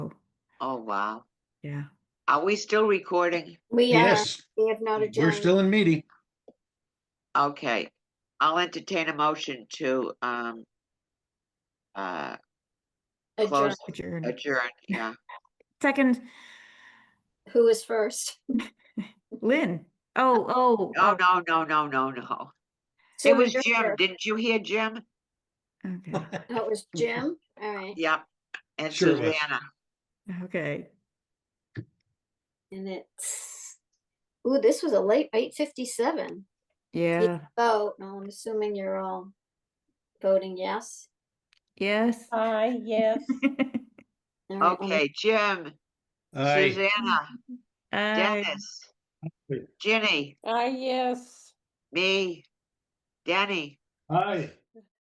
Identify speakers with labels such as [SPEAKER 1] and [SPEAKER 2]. [SPEAKER 1] Oh, wow.
[SPEAKER 2] Yeah.
[SPEAKER 1] Are we still recording?
[SPEAKER 3] We are,
[SPEAKER 4] Yes,
[SPEAKER 3] we have not adjourned.
[SPEAKER 4] we're still in meeting.
[SPEAKER 1] Okay, I'll entertain a motion to, um, uh,
[SPEAKER 3] Adjourned.
[SPEAKER 1] close,
[SPEAKER 2] Adjourn.
[SPEAKER 1] adjourn, yeah.
[SPEAKER 2] Second,
[SPEAKER 3] Who was first?
[SPEAKER 2] Lynn. Oh, oh.
[SPEAKER 1] No, no, no, no, no, no. It
[SPEAKER 3] Sue
[SPEAKER 1] was
[SPEAKER 3] was
[SPEAKER 1] Jim.
[SPEAKER 3] first.
[SPEAKER 1] Didn't you hear Jim?
[SPEAKER 2] no. Okay,
[SPEAKER 3] Oh, It
[SPEAKER 4] Mm-hmm.
[SPEAKER 3] was Jim? All right.
[SPEAKER 1] Yep. And
[SPEAKER 4] Sure was.
[SPEAKER 1] Susanna.
[SPEAKER 2] okay.
[SPEAKER 3] And it's, ooh, this was a late, eight fifty-seven.
[SPEAKER 2] Yeah,
[SPEAKER 3] Vote, no, I'm assuming you're all voting yes.
[SPEAKER 2] yes.
[SPEAKER 5] Aye, Ah, yes.
[SPEAKER 3] All right, well,
[SPEAKER 1] Okay, Jim,
[SPEAKER 4] Aye,
[SPEAKER 1] Susanna,
[SPEAKER 2] Aye.
[SPEAKER 1] Dennis, Ginny,
[SPEAKER 5] Aye, Ah, yes.
[SPEAKER 1] me, Danny,
[SPEAKER 6] Aye.